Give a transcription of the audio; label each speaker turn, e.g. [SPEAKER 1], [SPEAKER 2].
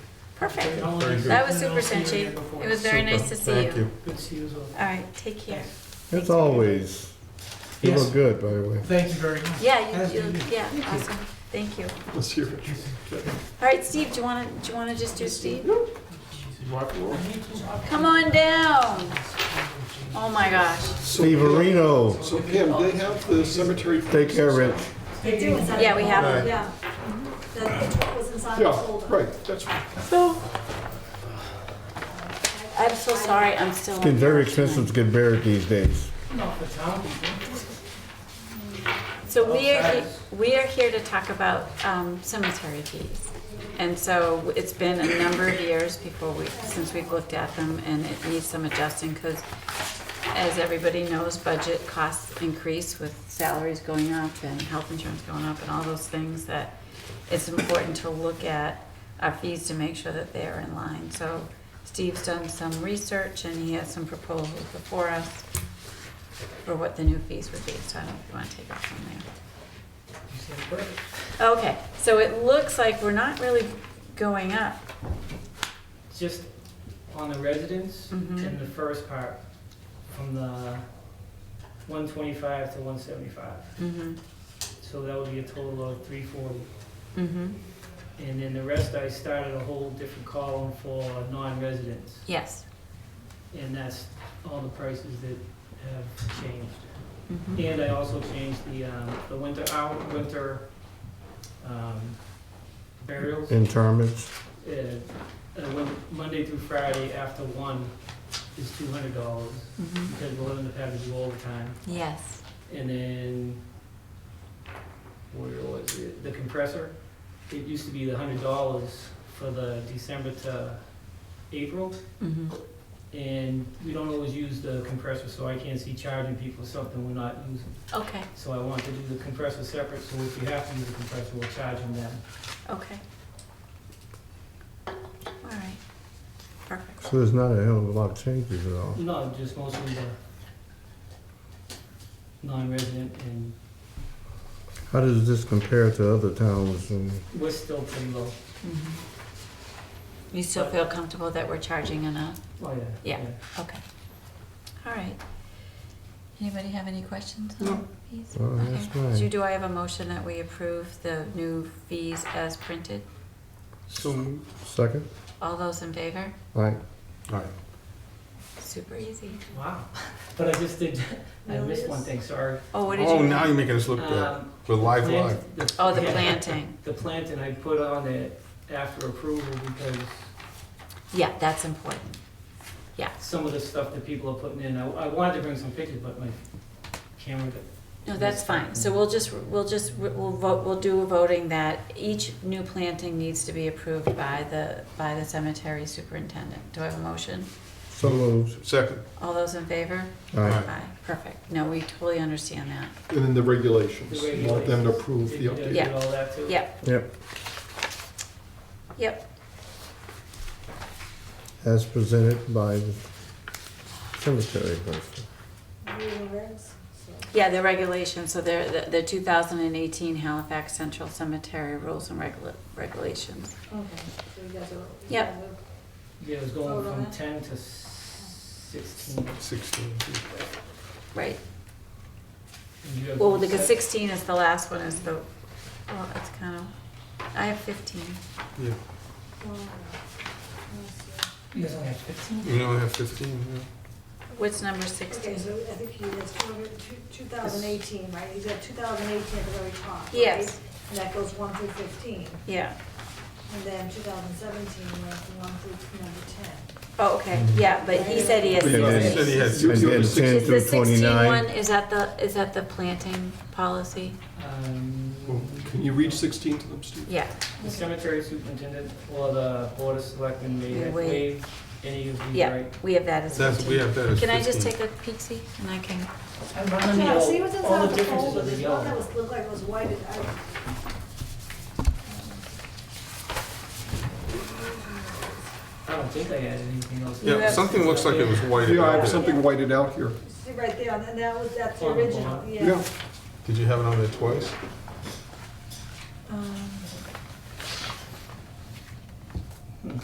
[SPEAKER 1] Perfect.
[SPEAKER 2] All of us.
[SPEAKER 3] Very good.
[SPEAKER 1] That was
[SPEAKER 2] And
[SPEAKER 1] super
[SPEAKER 2] I'll see you
[SPEAKER 1] Senchi.
[SPEAKER 2] again before.
[SPEAKER 1] It was very nice
[SPEAKER 3] Super.
[SPEAKER 1] to see
[SPEAKER 3] Thank
[SPEAKER 1] you.
[SPEAKER 3] you.
[SPEAKER 2] Good to see you as well.
[SPEAKER 1] All right, take care.
[SPEAKER 4] As always, you
[SPEAKER 2] Yes.
[SPEAKER 4] look good, by the way.
[SPEAKER 2] Thank you very much.
[SPEAKER 1] Yeah,
[SPEAKER 2] As
[SPEAKER 1] you, you,
[SPEAKER 2] do
[SPEAKER 1] yeah, awesome. Thank you. All
[SPEAKER 3] Let's hear it.
[SPEAKER 1] right, Steve, do you wanna, do you wanna just do
[SPEAKER 2] I
[SPEAKER 1] Steve?
[SPEAKER 2] need to walk.
[SPEAKER 1] Come on down. Oh my gosh.
[SPEAKER 3] So-
[SPEAKER 4] Steve Areno,
[SPEAKER 3] So Pam, they have the cemetery.
[SPEAKER 4] take care, Rich.
[SPEAKER 5] They do inside.
[SPEAKER 1] Yeah, we have
[SPEAKER 3] Right.
[SPEAKER 5] Yeah. The, the truck was inside the
[SPEAKER 3] Yeah,
[SPEAKER 5] folder.
[SPEAKER 3] right, that's,
[SPEAKER 1] So, I'm so sorry, I'm still.
[SPEAKER 4] It's getting very expensive to get buried these days.
[SPEAKER 2] Off the top.
[SPEAKER 1] So we are, he- we are here to talk about um, cemetery fees. And so it's been a number of years before we, since we've looked at them and it needs some adjusting because as everybody knows, budget costs increase with salaries going up and health insurance going up and all those things that it's important to look at our fees to make sure that they're in line. So Steve's done some research and he has some proposals before us for what the new fees would be, so I don't know if you wanna take off from there.
[SPEAKER 2] You said it perfect.
[SPEAKER 1] Okay, so it looks like we're not really going up.
[SPEAKER 6] Just on the residents
[SPEAKER 2] Mm-hmm.
[SPEAKER 1] Mhm.
[SPEAKER 6] in the first part, from the one twenty-five to one seventy-five.
[SPEAKER 1] Mm-hmm,
[SPEAKER 6] So that would be a total of three forty.
[SPEAKER 1] mm-hmm.
[SPEAKER 6] And then the rest, I started a whole different column for non-residents.
[SPEAKER 1] Yes.
[SPEAKER 6] And that's all the prices that have changed.
[SPEAKER 1] Mm-hmm.
[SPEAKER 6] And I also changed the, um, the winter hour, winter, um, burials.
[SPEAKER 4] Interments,
[SPEAKER 6] Uh, uh, when- Monday through Friday after one is two hundred dollars.
[SPEAKER 1] Mm-hmm.
[SPEAKER 6] because we'll end up having to do overtime.
[SPEAKER 1] Yes.
[SPEAKER 6] And then, where was it? The compressor. It used to be the hundred dollars for the December to April,
[SPEAKER 1] Mm-hmm.
[SPEAKER 6] and we don't always use the compressor, so I can't see charging people something we're not using.
[SPEAKER 1] Okay,
[SPEAKER 6] So I want to do the compressor separate, so if you have to use the compressor, we'll charge them then.
[SPEAKER 1] okay. All right, perfect.
[SPEAKER 4] so there's not a hell of a lot of changes at all.
[SPEAKER 6] No, just mostly the non-resident, and
[SPEAKER 4] How does this compare to other towns and
[SPEAKER 6] we're still pretty low.
[SPEAKER 1] Mm-hmm. You still feel comfortable that we're charging enough?
[SPEAKER 6] Oh,
[SPEAKER 1] Yeah. Okay. All right. Anybody have any questions on fees?
[SPEAKER 4] No,
[SPEAKER 1] Okay.
[SPEAKER 4] that's fine.
[SPEAKER 1] So do I have a motion that we approve the new fees as printed?
[SPEAKER 3] so,
[SPEAKER 4] second?
[SPEAKER 1] All those in favor?
[SPEAKER 4] Like,
[SPEAKER 3] all right.
[SPEAKER 1] Super easy.
[SPEAKER 6] Wow. But I just did, I missed one thing, sorry.
[SPEAKER 1] Oh, what did you? Uh,
[SPEAKER 3] Oh, now you're making us look bad.
[SPEAKER 6] Um,
[SPEAKER 3] We're live,
[SPEAKER 6] plant-
[SPEAKER 3] live.
[SPEAKER 6] the-
[SPEAKER 1] Oh, the
[SPEAKER 6] yeah,
[SPEAKER 1] planting.
[SPEAKER 6] The planting I put on it after approval because
[SPEAKER 1] Yeah, that's important.
[SPEAKER 6] some of the stuff that people are putting in, I, I wanted to bring some pictures, but my camera got
[SPEAKER 1] No, that's fine. So we'll just, we'll just, we'll vote, we'll do a voting that each new planting needs to be approved by the, by the cemetery superintendent. Do I have a motion?
[SPEAKER 4] so moved.
[SPEAKER 3] Second,
[SPEAKER 1] All those in favor?
[SPEAKER 4] Aye.
[SPEAKER 1] Aye, perfect. No, we totally understand that.
[SPEAKER 3] and then the
[SPEAKER 6] the
[SPEAKER 3] regulations,
[SPEAKER 6] regulations.
[SPEAKER 3] You want them to approve
[SPEAKER 6] Did
[SPEAKER 3] the
[SPEAKER 6] you
[SPEAKER 3] update.
[SPEAKER 1] Yeah.
[SPEAKER 6] Did all that too?
[SPEAKER 1] Yep,
[SPEAKER 4] Yep,
[SPEAKER 1] yep,
[SPEAKER 4] as presented by the cemetery person.
[SPEAKER 5] Rural regs, so.
[SPEAKER 1] yeah, the regulations, so they're, the- the two thousand and eighteen Halifax Central Cemetery Rules and Regula- Regulations.
[SPEAKER 5] Okay, so you guys are. you
[SPEAKER 1] Yep.
[SPEAKER 5] guys are-
[SPEAKER 6] Yeah, it was going
[SPEAKER 5] Vote on
[SPEAKER 6] from
[SPEAKER 5] that.
[SPEAKER 6] ten to sixteen.
[SPEAKER 3] Sixteen.
[SPEAKER 1] Right,
[SPEAKER 6] And you have
[SPEAKER 1] well, because
[SPEAKER 6] set-
[SPEAKER 1] sixteen is the last one, is the, well, it's kind of, I have fifteen.
[SPEAKER 3] Yeah,
[SPEAKER 5] well, let's
[SPEAKER 6] You guys only have fifteen?
[SPEAKER 3] we only have fifteen,
[SPEAKER 1] What's number
[SPEAKER 5] see. Okay,
[SPEAKER 1] sixteen?
[SPEAKER 5] so I think he has two hundred, two, two thousand eighteen, right? He's got two thousand eighteen at the very top, right?
[SPEAKER 1] Yes.
[SPEAKER 5] And that goes one through fifteen,
[SPEAKER 1] Yeah,
[SPEAKER 5] and then two thousand seventeen went from one through number ten.
[SPEAKER 1] oh, okay, yeah, but he said he has
[SPEAKER 3] Yeah,
[SPEAKER 4] he
[SPEAKER 1] sixteen.
[SPEAKER 3] said Mm-hmm. he had
[SPEAKER 4] And then
[SPEAKER 3] Sixteen.
[SPEAKER 4] ten
[SPEAKER 1] Is the
[SPEAKER 4] through
[SPEAKER 1] sixteen one,
[SPEAKER 4] twenty-nine.
[SPEAKER 1] is that the, is that the planting policy?
[SPEAKER 6] Um.
[SPEAKER 3] yeah. Well, Can you read sixteen to them, Steve?
[SPEAKER 1] Yeah,
[SPEAKER 6] The cemetery superintendent or the board of selectmen
[SPEAKER 1] We
[SPEAKER 6] may
[SPEAKER 1] waive.
[SPEAKER 6] waive any of these
[SPEAKER 1] yeah,
[SPEAKER 6] rights.
[SPEAKER 1] we have that as
[SPEAKER 3] That's, we
[SPEAKER 1] fifteen.
[SPEAKER 3] have that as fifteen.
[SPEAKER 1] Can I just take a peek, see, and I can,
[SPEAKER 5] Yeah, see what's
[SPEAKER 6] All
[SPEAKER 5] inside
[SPEAKER 6] the
[SPEAKER 5] the
[SPEAKER 6] differences
[SPEAKER 5] folder,
[SPEAKER 6] of the
[SPEAKER 5] the one that
[SPEAKER 6] yellow.
[SPEAKER 5] was, looked like it was white, I,
[SPEAKER 6] I don't think I added anything else.
[SPEAKER 1] You
[SPEAKER 3] Yeah,
[SPEAKER 1] have-
[SPEAKER 3] something looks like it was whited
[SPEAKER 5] I
[SPEAKER 3] out.
[SPEAKER 5] have some-
[SPEAKER 3] there.
[SPEAKER 5] something
[SPEAKER 3] whited out here.
[SPEAKER 5] see right there, and then that was, that's the
[SPEAKER 6] On the
[SPEAKER 5] original,
[SPEAKER 6] bottom.
[SPEAKER 5] yeah.
[SPEAKER 3] Yeah. Did you have it on there twice?
[SPEAKER 5] Um,